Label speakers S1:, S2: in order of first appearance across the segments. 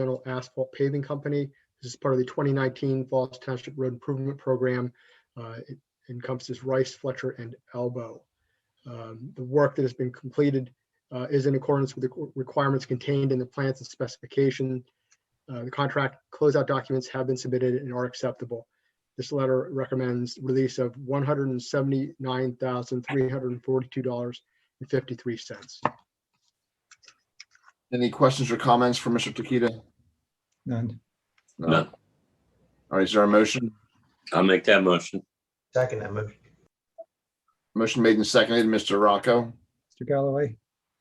S1: General Asphalt Paving Company. This is part of the 2019 Falls Township Road Improvement Program. Uh, It encompasses Rice, Fletcher, and Elbow. Um, The work that has been completed uh, is in accordance with the qu- requirements contained in the plans and specification. Uh, The contract closeout documents have been submitted and are acceptable. This letter recommends release of $179,342.53.
S2: Any questions or comments for Mr. Takita?
S3: None.
S4: None.
S2: All right, is there a motion?
S4: I'll make that motion.
S5: Second that motion.
S2: Motion made and seconded, Mr. Rocco,
S3: Mr. Galloway,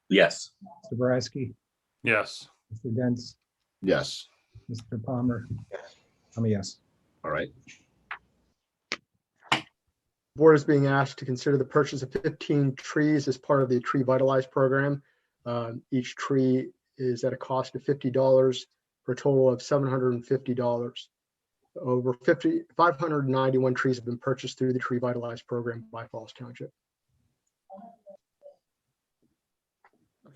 S4: Yes.
S3: Mr. Boraski,
S6: yes,
S3: Mr. Dents,
S2: yes.
S3: Mr. Palmer.
S5: Yes.
S3: I'm a yes.
S2: All right,
S1: board is being asked to consider the purchase of 15 trees as part of the Tree Vitalize program. Um, Each tree is at a cost of $50 for a total of $750. Over 50, 591 trees have been purchased through the Tree Vitalize program by Falls Township.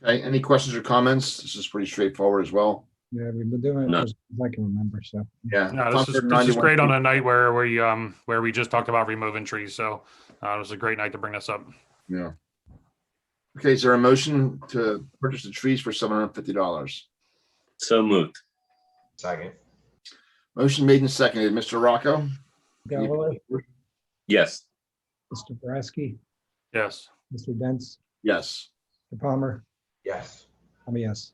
S2: okay, any questions or comments? This is pretty straightforward as well.
S3: Yeah, we've been doing it
S4: None.
S3: as I can remember, so.
S2: Yeah.
S6: no, this is, this is great on a night where we, um, where we just talked about removing trees, so, uh, it was a great night to bring this up.
S2: Yeah. Okay, is there a motion to purchase the trees for seven hundred and fifty dollars?
S4: So moved.
S5: Second.
S2: Motion made and seconded, Mr. Rocco,
S3: Galloway,
S4: Yes.
S3: Mr. Boraski,
S6: Yes,
S3: Mr. Dents,
S2: yes.
S3: Mr. Palmer.
S5: Yes.
S3: I'm a yes.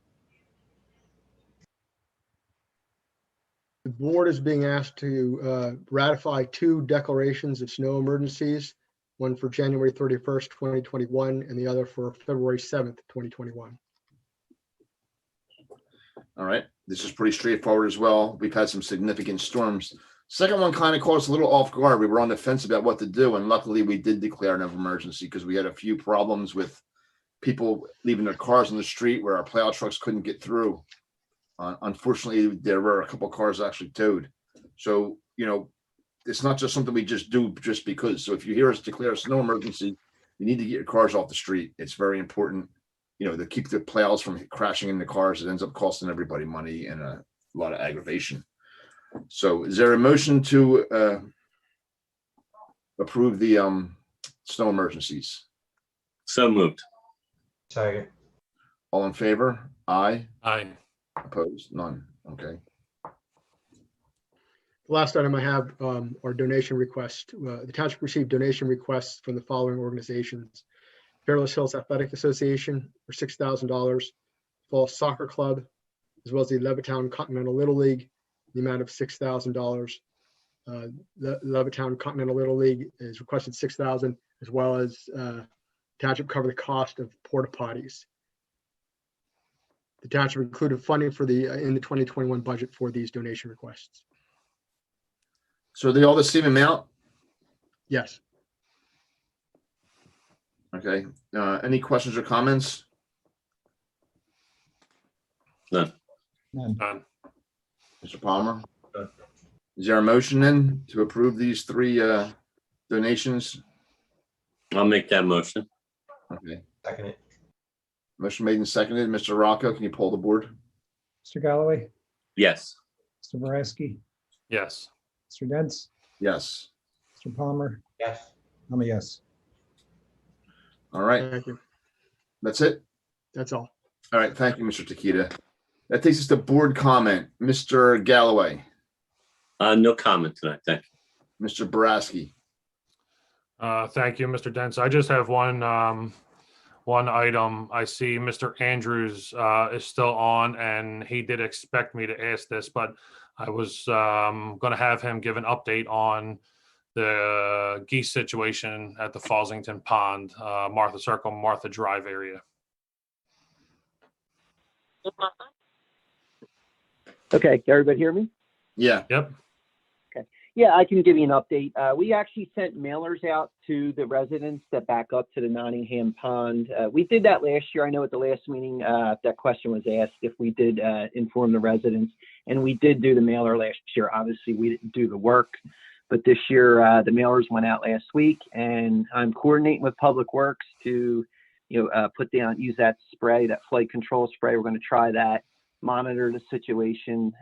S1: The board is being asked to uh, ratify two declarations of snow emergencies, one for January 31st, 2021, and the other for February 7th, 2021.
S2: All right, this is pretty straightforward as well. We've had some significant storms. Second one kind of caught us a little off guard. We were on the fence about what to do, and luckily we did declare an emergency because we had a few problems with people leaving their cars on the street where our plow trucks couldn't get through. Uh, unfortunately, there were a couple cars actually towed. So, you know, it's not just something we just do just because. So if you hear us declare a snow emergency, you need to get your cars off the street. It's very important you know, to keep the plows from crashing into cars, it ends up costing everybody money and a lot of aggravation. So is there a motion to uh approve the um snow emergencies?
S4: So moved.
S5: Second.
S2: All in favor? Aye.
S6: I,
S2: Opposed? None. Okay.
S1: The last item I have um, are donation requests. Uh, The township received donation requests from the following organizations. Fairless Hills Athletic Association for six thousand dollars, Falls Soccer Club, as well as the Levittown Continental Little League, the amount of six thousand dollars. The Levittown Continental Little League is requested six thousand, dollars as well as uh, township cover the cost of porta potties. The township included funding for the, uh, in the twenty twenty-one budget for these donation requests.
S2: So are they all the same amount?
S1: Yes.
S2: Okay. Uh any questions or comments?
S3: None.
S6: done.
S2: Mr. Palmer?
S5: Uh.
S2: Is there a motion then to approve these three uh donations?
S4: I'll make that motion.
S2: Okay.
S5: Second it.
S2: Motion made and seconded. Mr. Rocco, can you pull the board?
S3: Mr. Galloway,
S4: Yes.
S3: Mr. Boraski,
S6: yes,
S3: Mr. Dents,
S2: Yes.
S3: Mr. Palmer.
S5: Yes.
S3: I'm a yes.
S2: All right,
S1: Thank you.
S2: that's it.
S1: That's all.
S2: All right, thank you, Mr. Takita. That takes us to board comment. Mr. Galloway,
S4: Uh, no comment tonight. Thank you.
S2: Mr. Boraski.
S6: Uh, thank you, Mr. Dents. I just have one, um, one item. I see Mr. Andrews, uh, is still on and he did expect me to ask this, but I was, um, gonna have him give an update on the geese situation at the Fosington Pond, uh, Martha Circle, Martha Drive area.
S7: Okay, can everybody hear me?
S2: Yeah,
S6: Yep,
S7: Yeah, I can give you an update. Uh, we actually sent mailers out to the residents that back up to the Nottingham Pond. Uh, we did that last year. I know at the last meeting, uh, that question was asked if we did, uh, inform the residents. And we did do the mailer last year. Obviously, we didn't do the work. But this year, uh, the mailers went out last week and I'm coordinating with Public Works to, you know, uh, put down, use that spray, that flood control spray. We're gonna try that. monitor the situation